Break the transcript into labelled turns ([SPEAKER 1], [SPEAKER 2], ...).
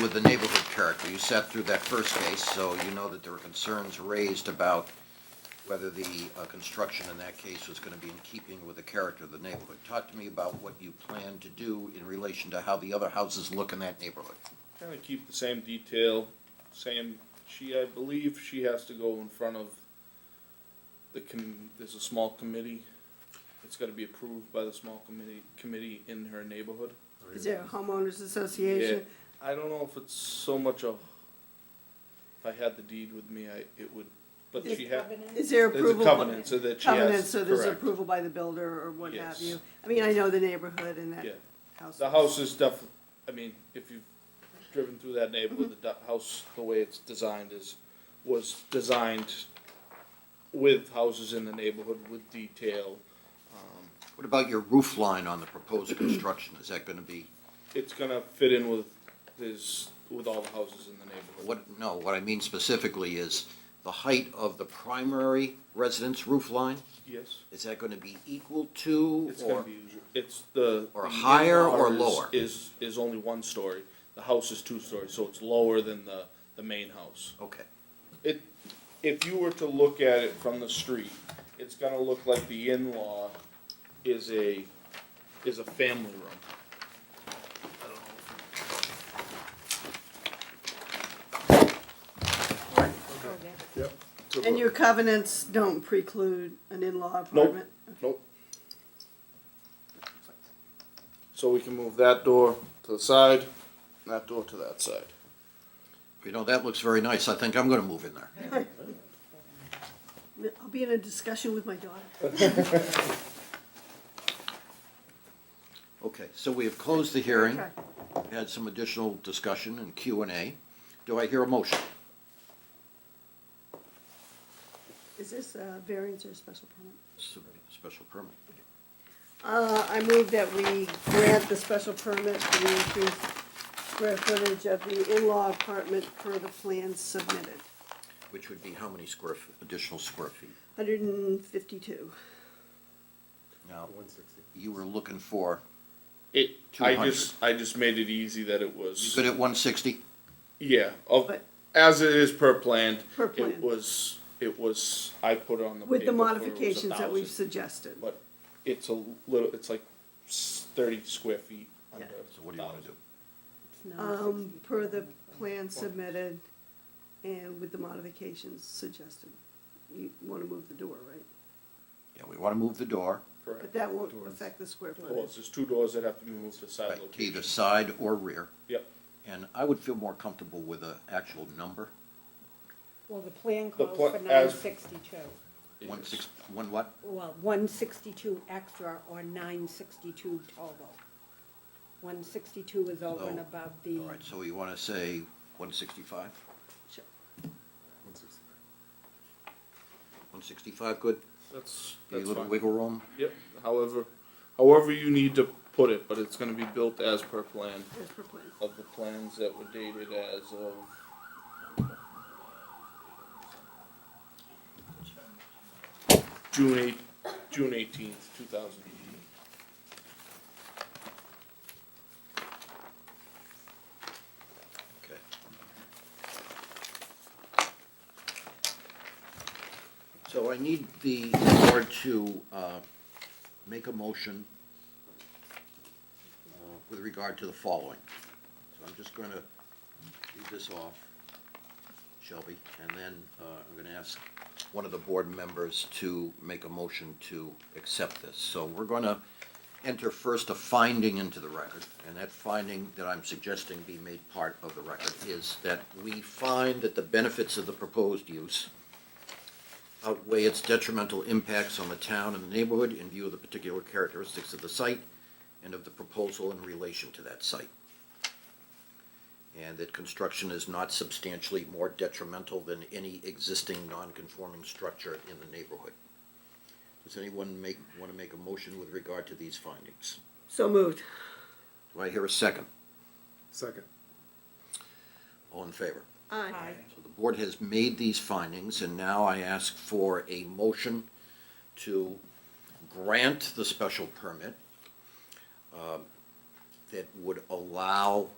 [SPEAKER 1] with the neighborhood character. You sat through that first case, so you know that there were concerns raised about whether the uh, construction in that case was going to be in keeping with the character of the neighborhood. Talk to me about what you plan to do in relation to how the other houses look in that neighborhood.
[SPEAKER 2] Kind of keep the same detail, same, she, I believe she has to go in front of the com, there's a small committee. It's gotta be approved by the small committee, committee in her neighborhood.
[SPEAKER 3] Is there a homeowners
[SPEAKER 2] Yeah,
[SPEAKER 3] association?
[SPEAKER 2] I don't know if it's so much of, if I had the deed with me, I, it would, but she had,
[SPEAKER 3] Is there
[SPEAKER 2] there's a
[SPEAKER 3] approval?
[SPEAKER 2] covenant, so that she
[SPEAKER 3] Covenant,
[SPEAKER 2] has,
[SPEAKER 3] so there's
[SPEAKER 2] correct.
[SPEAKER 3] approval by the builder or what have
[SPEAKER 2] Yes.
[SPEAKER 3] you. I mean, I know the neighborhood and that
[SPEAKER 2] Yeah.
[SPEAKER 3] house.
[SPEAKER 2] The house is def, I mean, if you've driven through that neighborhood, the du- house, the way it's designed is, was designed with houses in the neighborhood with detail.
[SPEAKER 1] What about your roof line on the proposed construction? Is that going to be,
[SPEAKER 2] It's gonna fit in with this, with all the houses in the neighborhood.
[SPEAKER 1] what, no, what I mean specifically is the height of the primary residence roof line?
[SPEAKER 2] Yes,
[SPEAKER 1] Is that going to be equal to?
[SPEAKER 2] it's gonna
[SPEAKER 1] or-
[SPEAKER 2] be, it's the.
[SPEAKER 1] or
[SPEAKER 2] the
[SPEAKER 1] higher or
[SPEAKER 2] in-law is-
[SPEAKER 1] lower?
[SPEAKER 2] Is, is only one story. The house is two stories, so it's lower than the, the main house.
[SPEAKER 1] Okay.
[SPEAKER 2] It, if you were to look at it from the street, it's gonna look like the in-law is a, is a family room. I don't know if it's a
[SPEAKER 3] And
[SPEAKER 2] look.
[SPEAKER 3] your covenants don't preclude an in-law apartment?
[SPEAKER 2] Nope. So we can move that door to the side, and that door to that side.
[SPEAKER 1] You know, that looks very nice. I think I'm going to move in there.
[SPEAKER 3] I'll be in a discussion with my daughter.
[SPEAKER 1] Okay, so we have closed the hearing,
[SPEAKER 3] Okay.
[SPEAKER 1] had some additional discussion and Q and A. Do I hear a motion?
[SPEAKER 3] Is this a variance or a special permit?
[SPEAKER 1] Special permit.
[SPEAKER 3] Uh, I move that we grant the special permit for the increased square footage of the in-law apartment per the plan submitted.
[SPEAKER 1] Which would be how many square, f- additional square feet?
[SPEAKER 3] Hundred and fifty-two.
[SPEAKER 1] Now, you were looking for,
[SPEAKER 2] It, I
[SPEAKER 1] 200.
[SPEAKER 2] just, I just made it easy that it was.
[SPEAKER 1] you good at one sixty?
[SPEAKER 2] Yeah, of,
[SPEAKER 3] But-
[SPEAKER 2] as it is per plan.
[SPEAKER 3] Per plan.
[SPEAKER 2] It was, it was, I put it on the. paper
[SPEAKER 3] With the
[SPEAKER 2] for it was
[SPEAKER 3] modifications that we've
[SPEAKER 2] 1,000,
[SPEAKER 3] suggested.
[SPEAKER 2] But it's a little, it's like s- thirty square feet under.
[SPEAKER 1] So what do you want to do?
[SPEAKER 3] Um, per the plan submitted and with the modifications suggested. You wanna move the door, right?
[SPEAKER 1] Yeah, we want to move the door,
[SPEAKER 3] But
[SPEAKER 2] Correct.
[SPEAKER 3] that won't affect the square
[SPEAKER 2] Of course,
[SPEAKER 3] footage.
[SPEAKER 2] there's two doors that have to be moved to
[SPEAKER 1] right,
[SPEAKER 2] side
[SPEAKER 1] to either
[SPEAKER 2] location.
[SPEAKER 1] side or rear.
[SPEAKER 2] Yep,
[SPEAKER 1] And I would feel more comfortable with an actual number,
[SPEAKER 4] Well, the plan
[SPEAKER 2] The
[SPEAKER 4] calls
[SPEAKER 2] pla-
[SPEAKER 4] for nine
[SPEAKER 2] as-
[SPEAKER 4] sixty-two.
[SPEAKER 1] one six, one what?
[SPEAKER 4] Well, one sixty-two extra or nine sixty-two total. One sixty-two is over and
[SPEAKER 1] No.
[SPEAKER 4] above the,
[SPEAKER 1] All right, so you want to say one sixty-five?
[SPEAKER 4] Sure.
[SPEAKER 1] One sixty-five, good?
[SPEAKER 2] that's,
[SPEAKER 1] Give you
[SPEAKER 2] that's
[SPEAKER 1] A little
[SPEAKER 2] fine.
[SPEAKER 1] wiggle room?
[SPEAKER 2] Yep, however, however you need to put it, but it's gonna be built as per plan
[SPEAKER 3] As per plan.
[SPEAKER 2] of the plans that were dated as of June eight, June eighteenth, two thousand eighteen.
[SPEAKER 1] Okay. So I need the board to uh, make a motion uh, with regard to the following. So I'm just going to leave this off, Shelby, and then uh, I'm going to ask one of the board members to make a motion to accept this. So we're going to enter first a finding into the record, and that finding that I'm suggesting be made part of the record is that we find that the benefits of the proposed use outweigh its detrimental impacts on the town and the neighborhood in view of the particular characteristics of the site and of the proposal in relation to that site. And that construction is not substantially more detrimental than any existing non-conforming structure in the neighborhood. Does anyone make, want to make a motion with regard to these findings?
[SPEAKER 3] So moved.
[SPEAKER 1] Do I hear a second?
[SPEAKER 5] Second.
[SPEAKER 1] All in favor?
[SPEAKER 3] Aye.
[SPEAKER 1] So the board has made these findings, and now I ask for a motion to grant the special permit uh, um, that would allow